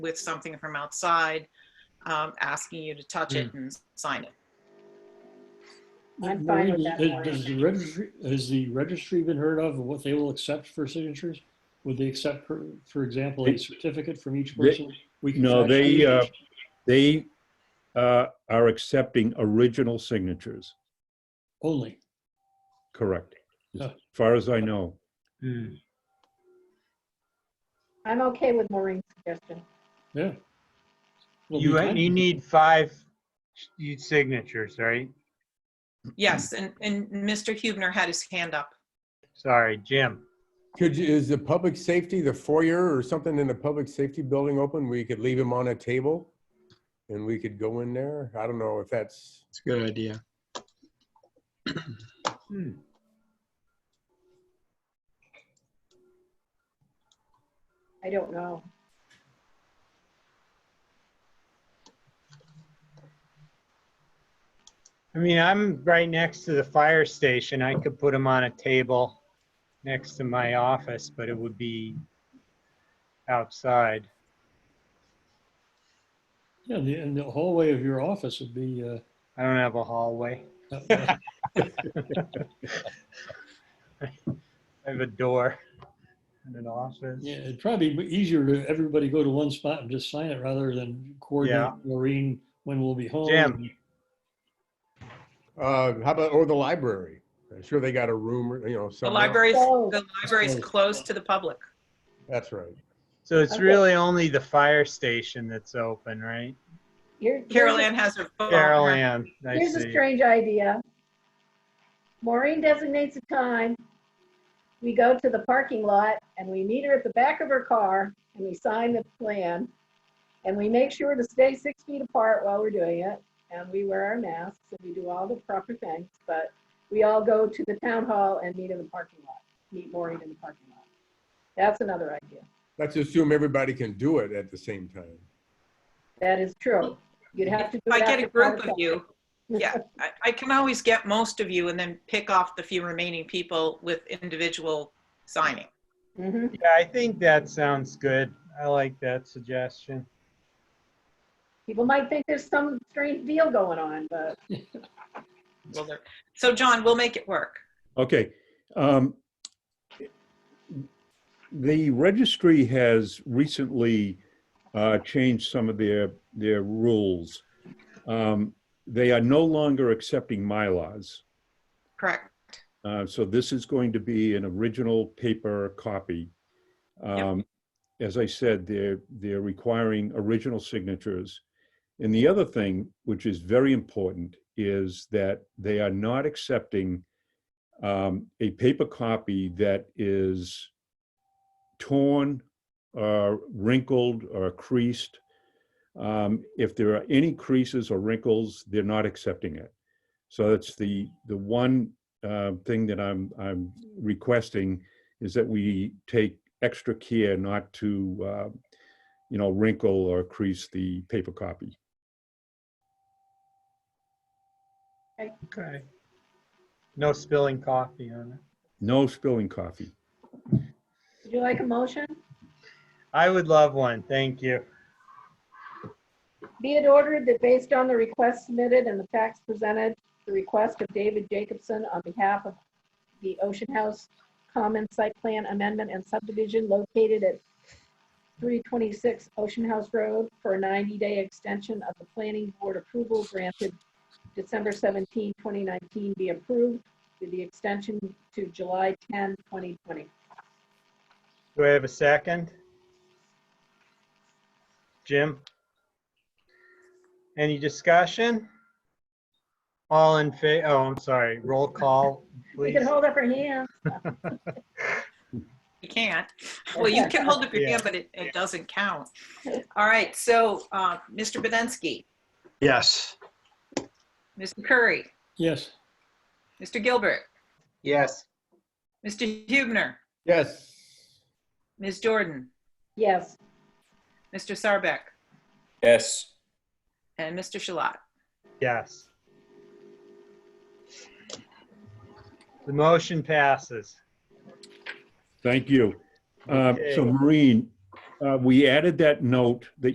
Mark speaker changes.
Speaker 1: with something from outside, um, asking you to touch
Speaker 2: Mm.
Speaker 1: it and sign it.
Speaker 3: I'm fine with that
Speaker 4: Has- Has the
Speaker 3: part.
Speaker 4: registry, has the registry been heard of, what they will accept for signatures? Would they accept, for for example, a
Speaker 5: They-
Speaker 4: certificate from each
Speaker 5: they-
Speaker 4: person? We can
Speaker 5: No,
Speaker 4: fax
Speaker 5: they, uh,
Speaker 4: signatures?
Speaker 5: they uh, are accepting original signatures,
Speaker 4: Only,
Speaker 5: correct? As
Speaker 4: Yeah.
Speaker 5: far as I know.
Speaker 2: Hmm.
Speaker 3: I'm okay with Maureen's suggestion.
Speaker 4: yeah. Well,
Speaker 2: You,
Speaker 4: we can-
Speaker 2: you need five you signatures, right?
Speaker 1: Yes,
Speaker 2: Mm.
Speaker 1: and, and Mr. Hubner had his hand up.
Speaker 2: Sorry, Jim.
Speaker 6: Could you, is the public safety, the foyer or something in the public safety building open? We could leave him on a table and we could go in there. I don't know if that's,
Speaker 7: It's a good idea.
Speaker 2: Hmm.
Speaker 3: I don't know.
Speaker 2: I mean, I'm right next to the fire station. I could put them on a table next to my office, but it would be outside.
Speaker 4: Yeah, the- and the hallway of your office would be, uh,
Speaker 2: I don't have a hallway.
Speaker 4: uh,
Speaker 2: I have a door and an office.
Speaker 4: yeah, it'd probably be easier to everybody go to one spot and just sign it rather than
Speaker 2: Yeah.
Speaker 4: coordinate Maureen when we'll be home.
Speaker 2: Jim.
Speaker 6: uh, how about, or the library? I'm sure they got a room, or you know,
Speaker 1: The
Speaker 6: somewhere.
Speaker 1: library's,
Speaker 3: Oh.
Speaker 1: the library's closed to the public.
Speaker 6: That's right.
Speaker 2: So it's
Speaker 3: Okay.
Speaker 2: really only the fire station that's open, right?
Speaker 3: Here- here's a-
Speaker 1: Carol Ann has her phone.
Speaker 2: Carol Ann, I
Speaker 3: Oh, Here's a
Speaker 2: see.
Speaker 3: strange idea. Maureen designates a time. We go to the parking lot and we meet her at the back of her car and we sign the plan. And we make sure to stay six feet apart while we're doing it. And we wear our masks and we do all the proper things, but we all go to the town hall and meet in the parking lot, meet Maureen in the parking lot. That's another idea.
Speaker 6: Let's assume everybody can do it at the same time.
Speaker 3: That is true. You'd have to. do
Speaker 1: If I
Speaker 3: it
Speaker 1: get a
Speaker 3: after
Speaker 1: group
Speaker 3: five
Speaker 1: of you, yeah, I, I can always get most of you and then pick off the few remaining people with individual signing.
Speaker 3: o'clock. Mhm.
Speaker 2: Yeah, I think that sounds good. I like that suggestion.
Speaker 3: People might think there's some strange deal going on, but
Speaker 1: Will there- So John, we'll make it work.
Speaker 5: Okay. um, The registry has recently uh, changed some of their, their rules. Um, They are no longer accepting MyLars.
Speaker 1: Correct.
Speaker 5: Uh, So this is going to be an original paper copy. Um, As I said, they're, they're requiring original signatures. And the other thing, which is very important, is that they are not accepting um, a paper copy that is torn, uh, wrinkled, or creased. Um, If there are any creases or wrinkles, they're not accepting it. So that's the, the one uh, thing that I'm, I'm requesting is that we take extra care not to, uh, you know, wrinkle or crease the paper copy.
Speaker 2: Okay. No spilling coffee on it.
Speaker 5: No spilling coffee.
Speaker 3: would you like a motion?
Speaker 2: I would love one, thank you.
Speaker 3: Be it ordered that based on the request submitted and the facts presented, the request of David Jacobson on behalf of the Ocean House Common Site Plan Amendment and Subdivision located at 326 Ocean House Road for a 90-day extension of the planning board approval granted December 17, 2019 be approved with the extension to July 10, 2020.
Speaker 2: Do I have a second? Jim? Any discussion? All in fa, oh, I'm sorry, roll call,
Speaker 3: We
Speaker 2: please.
Speaker 3: can hold up our hands.
Speaker 1: You can't. Well, you can hold up your
Speaker 2: Yeah.
Speaker 1: hand, but it, it doesn't count. All right, so, uh, Mr. Bedensky,
Speaker 7: Yes.
Speaker 1: Mr. Curry,
Speaker 4: Yes,
Speaker 1: Mr. Gilbert,
Speaker 2: Yes.
Speaker 1: Mr. Hubner,
Speaker 6: Yes.
Speaker 1: Ms. Jordan,
Speaker 3: Yes,
Speaker 1: Mr. Sarbeck,
Speaker 8: yes.
Speaker 1: and Mr. Shalat.
Speaker 2: Yes. The motion passes.
Speaker 5: Thank you. Uh,
Speaker 2: Okay.
Speaker 5: So Maureen, uh, we uh, added that note that